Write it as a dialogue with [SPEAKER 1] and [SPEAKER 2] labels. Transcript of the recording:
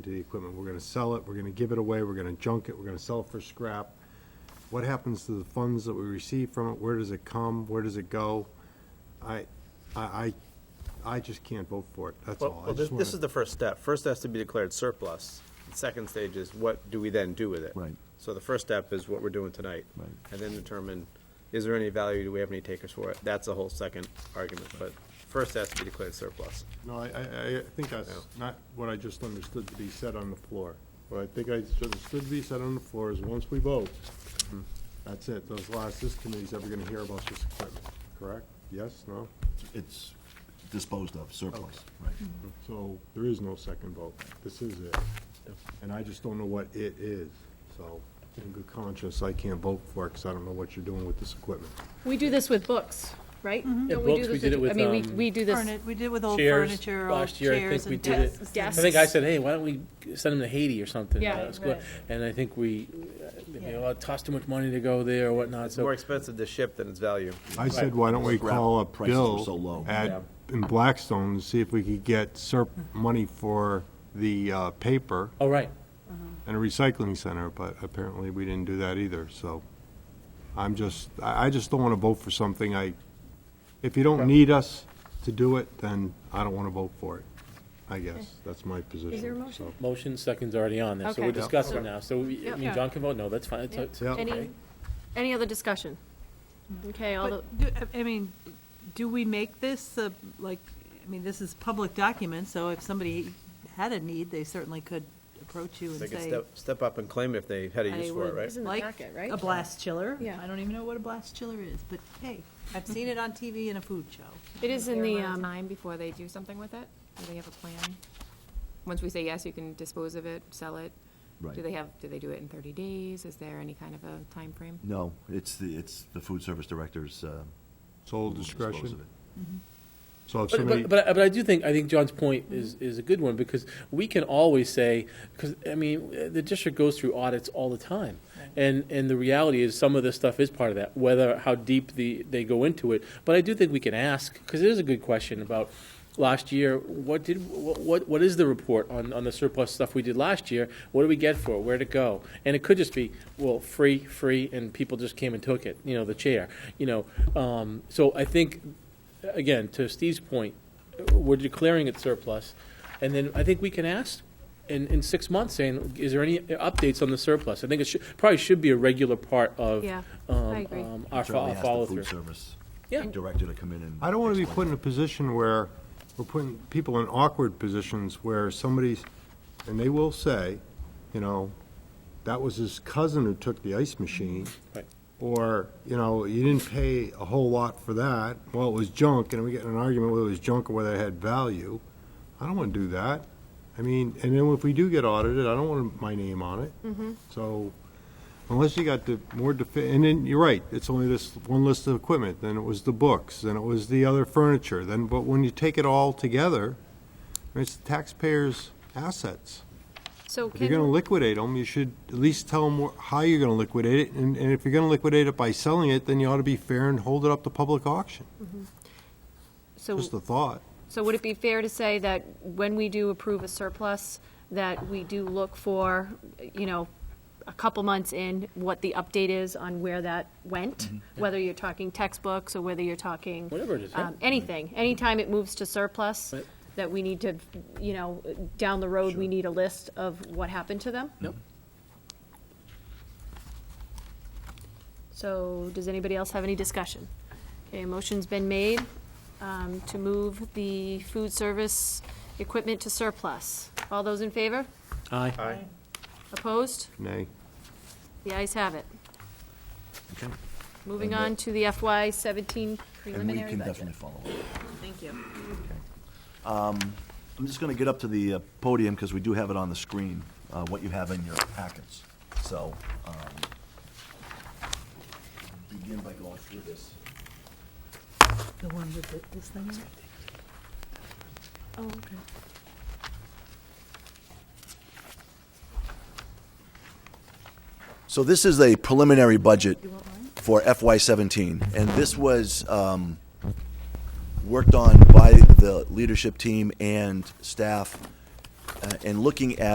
[SPEAKER 1] to the equipment? We're gonna sell it, we're gonna give it away, we're gonna junk it, we're gonna sell it for scrap. What happens to the funds that we receive from it? Where does it come? Where does it go? I, I, I, I just can't vote for it, that's
[SPEAKER 2] Well,
[SPEAKER 1] all. I
[SPEAKER 2] well, this,
[SPEAKER 1] just
[SPEAKER 2] this
[SPEAKER 1] wanna-
[SPEAKER 2] is the first step. First has to be declared surplus. The Second stage is what do we then do with it?
[SPEAKER 3] Right.
[SPEAKER 2] So the first step is what we're doing tonight.
[SPEAKER 3] Right.
[SPEAKER 2] And then determine, is there any value, do we have any takers for it? That's a whole second argument, but first has to be declared surplus.
[SPEAKER 1] No, I, I, I think that's not what I just understood to be said on the floor. What I think I just understood to be said on the floor is, once we vote,
[SPEAKER 3] Mm-hmm.
[SPEAKER 1] that's it, those last, this committee's ever gonna hear about this equipment, correct? Yes, no?
[SPEAKER 3] It's disposed of, surplus, right.
[SPEAKER 1] So there is no second vote, this is it. And I just don't know what it is, so in good conscience, I can't vote for it, because I don't know what you're doing with this equipment.
[SPEAKER 4] We do this with books, right?
[SPEAKER 1] Mm-hmm.
[SPEAKER 5] Yeah,
[SPEAKER 4] Don't
[SPEAKER 5] books,
[SPEAKER 4] do
[SPEAKER 5] we
[SPEAKER 4] this
[SPEAKER 5] did it with,
[SPEAKER 4] I mean, we,
[SPEAKER 5] um,
[SPEAKER 4] we do this,
[SPEAKER 6] Furni- We did with old
[SPEAKER 5] Chairs.
[SPEAKER 6] furniture, old
[SPEAKER 5] Last year, I think
[SPEAKER 6] chairs and
[SPEAKER 5] we did it.
[SPEAKER 6] desks. and
[SPEAKER 4] Desks.
[SPEAKER 5] I think I said, hey, why don't we send them to Haiti or something?
[SPEAKER 4] Yeah.
[SPEAKER 5] Uh, it's good.
[SPEAKER 6] Right.
[SPEAKER 5] And I think we, uh, you know, it costs too much money to go there or whatnot,
[SPEAKER 2] It's more
[SPEAKER 5] so.
[SPEAKER 2] expensive to ship than its value.
[SPEAKER 1] I said, why don't we
[SPEAKER 3] Scrap
[SPEAKER 1] call up
[SPEAKER 3] prices were so
[SPEAKER 1] Bill
[SPEAKER 3] low.
[SPEAKER 1] at, in Blackstone, and see if we could get SERP money for the uh, paper
[SPEAKER 5] Oh, right.
[SPEAKER 1] and a recycling center, but apparently we didn't do that either, so. I'm just, I, I just don't want to vote for something I, if you don't need us to do it, then I don't want to vote for it, I guess. That's my position.
[SPEAKER 4] there a motion?
[SPEAKER 1] so.
[SPEAKER 5] Motion, second's already on there, so we're
[SPEAKER 4] Okay. Yeah.
[SPEAKER 5] discussing
[SPEAKER 4] Okay.
[SPEAKER 5] now. So, we- I
[SPEAKER 4] Yeah.
[SPEAKER 5] mean, John can vote, no, that's fine. It's- it's-
[SPEAKER 1] Yeah.
[SPEAKER 4] any, any other discussion? Okay, all the,
[SPEAKER 6] But do- I- I mean, do we make this, uh, like, I mean, this is public document, so if somebody had a need, they certainly could approach you
[SPEAKER 2] They
[SPEAKER 6] and
[SPEAKER 2] can
[SPEAKER 6] say,
[SPEAKER 2] step, step up and claim if they had a
[SPEAKER 6] I
[SPEAKER 2] use for it,
[SPEAKER 6] would
[SPEAKER 2] right?
[SPEAKER 4] It's in the
[SPEAKER 6] like
[SPEAKER 4] packet, right?
[SPEAKER 6] a blast chiller.
[SPEAKER 4] Yeah.
[SPEAKER 6] I don't even know what a blast chiller is, but hey, I've seen it on TV in a food show.
[SPEAKER 4] it is in
[SPEAKER 7] fair
[SPEAKER 4] the,
[SPEAKER 7] amount of
[SPEAKER 4] um,
[SPEAKER 7] Time before they do something with it? Do they have a plan? Once we say yes, you can dispose of it, sell it? Do
[SPEAKER 3] Right.
[SPEAKER 7] they have, do they do it in thirty days? Is there any kind of a time frame?
[SPEAKER 3] No, it's the, it's the food service director's. uh,
[SPEAKER 1] Sole
[SPEAKER 3] who will dispose
[SPEAKER 1] discretion.
[SPEAKER 3] of it.
[SPEAKER 1] So if
[SPEAKER 5] But,
[SPEAKER 1] somebody,
[SPEAKER 5] but, but, I- but I do think, I think John's point is, is a good one, because we can always say, because, I mean, uh, the district goes through audits all the time. And, and the reality is, some of this stuff is part of that, whether, how deep the, they go into it. But I do think we can ask, because it is a good question about last year, what did, what, what- what is the report on, on the surplus stuff we did last year? What did we get for it? Where'd it go? And it could just be, well, free, free, and people just came and took it, you know, the chair, you know. Um, so I think again, to Steve's point, we're declaring it surplus, and then I think we can ask in, in six months, saying, is there any updates on the surplus? I think it should, probably should be a regular part of,
[SPEAKER 4] Yeah,
[SPEAKER 5] um,
[SPEAKER 4] I agree.
[SPEAKER 5] um, our fo-
[SPEAKER 3] Certainly ask the food
[SPEAKER 5] follow-through.
[SPEAKER 3] service
[SPEAKER 5] Yeah.
[SPEAKER 3] director to come in and.
[SPEAKER 1] I don't want to be put
[SPEAKER 3] explain
[SPEAKER 1] in a position where we're putting people in awkward positions where somebody's, and they will say, you know, that was his cousin who took the ice machine.
[SPEAKER 5] Right.
[SPEAKER 1] Or, you know, you didn't pay a whole lot for that. Well, it was junk, and we get in an argument whether it was junk or whether it had value. I don't want to do that. I mean, and then if we do get audited, I don't want my name on it. So unless you got the more defi, and then you're right, it's only this one list of equipment, then it was the books, then it was the other furniture, then, but when you take it all together, it's the taxpayers' assets.
[SPEAKER 4] so
[SPEAKER 1] If you're gonna
[SPEAKER 4] can,
[SPEAKER 1] liquidate them, you should at least tell them how you're gonna liquidate it, and, and if you're gonna liquidate it by selling it, then you ought to be fair and hold it up to public auction.
[SPEAKER 4] so,
[SPEAKER 1] Just a thought.
[SPEAKER 4] so would it be fair to say that when we do approve a surplus, that we do look for, you know, a couple months in, what the update is on where that went?
[SPEAKER 5] Mm-hmm.
[SPEAKER 4] Whether you're talking textbooks or whether you're talking.
[SPEAKER 5] Whatever it is, yeah.
[SPEAKER 4] um, Anything, anytime it moves to surplus,
[SPEAKER 5] Right.
[SPEAKER 4] that we need to, you know, down the road, we need a list of what happened to them?
[SPEAKER 5] Yep.
[SPEAKER 4] So, does anybody else have any discussion? Okay, a motion's been made um, to move the food service equipment to surplus. All those in favor?
[SPEAKER 5] Aye.
[SPEAKER 4] Opposed?
[SPEAKER 1] Nay.
[SPEAKER 4] The ayes have it.
[SPEAKER 3] Okay.
[SPEAKER 4] Moving on to the FY seventeen
[SPEAKER 3] And we
[SPEAKER 4] preliminary
[SPEAKER 3] can
[SPEAKER 4] budget.
[SPEAKER 3] definitely follow up. Um,
[SPEAKER 6] Thank you.
[SPEAKER 3] I'm just going to get up to the uh, podium because we do have it on the screen, uh, what you have in your packets. So, um, begin by going through this.
[SPEAKER 6] The one with the- this thing in it? Oh, okay.
[SPEAKER 3] So this is a preliminary budget
[SPEAKER 6] You want mine?
[SPEAKER 3] for FY seventeen, and this was, um, worked on by the leadership team and staff, uh, and looking at